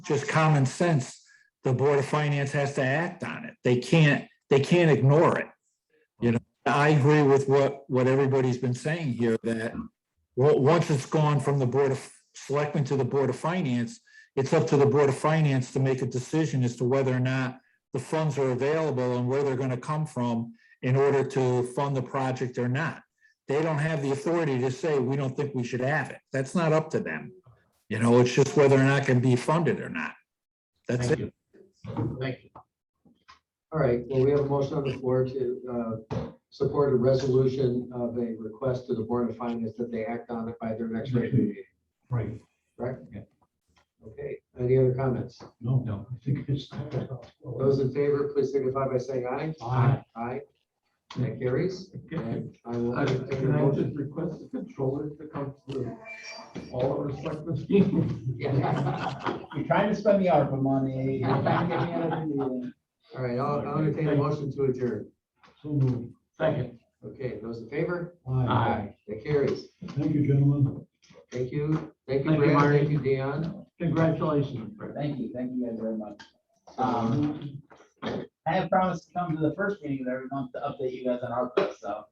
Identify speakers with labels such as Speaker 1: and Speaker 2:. Speaker 1: just common sense, the Board of Finance has to act on it. They can't, they can't ignore it. You know, I agree with what, what everybody's been saying here, that well, once it's gone from the Board of Selectmen to the Board of Finance, it's up to the Board of Finance to make a decision as to whether or not the funds are available and where they're gonna come from in order to fund the project or not. They don't have the authority to say, we don't think we should have it. That's not up to them. You know, it's just whether or not it can be funded or not. That's
Speaker 2: Thank
Speaker 1: it.
Speaker 2: you. Thank you. All right, well, we have a motion on the floor to uh, support a resolution of a request to the Board of Finance that they act on it by their next regular meeting.
Speaker 3: Right,
Speaker 2: Correct?
Speaker 3: Yeah.
Speaker 2: Okay, any other comments?
Speaker 3: no, no, I think it's.
Speaker 2: Those in favor, please signify by saying aye.
Speaker 3: Aye.
Speaker 2: Aye. That carries.
Speaker 4: Can
Speaker 2: And I will
Speaker 4: I
Speaker 2: entertain a
Speaker 4: can I
Speaker 2: motion.
Speaker 4: just request the controller to come through all of our selectmen's meetings?
Speaker 2: Yeah.
Speaker 5: You're trying to spend the ARPA money. You're trying to get me out of the meeting.
Speaker 2: All right, I'll I'll entertain a motion to adjourn.
Speaker 3: So moved.
Speaker 4: Second.
Speaker 2: Okay, those in favor?
Speaker 3: Aye.
Speaker 2: That carries.
Speaker 3: Thank you, gentlemen.
Speaker 2: Thank you. Thank you,
Speaker 4: Thank you,
Speaker 2: Brad.
Speaker 4: Marty.
Speaker 2: Thank you, Dion.
Speaker 4: Congratulations, Brett.
Speaker 5: Thank you, thank you guys very much. Um, I have promised to come to the first meeting of every month to update you guys on ARPA, so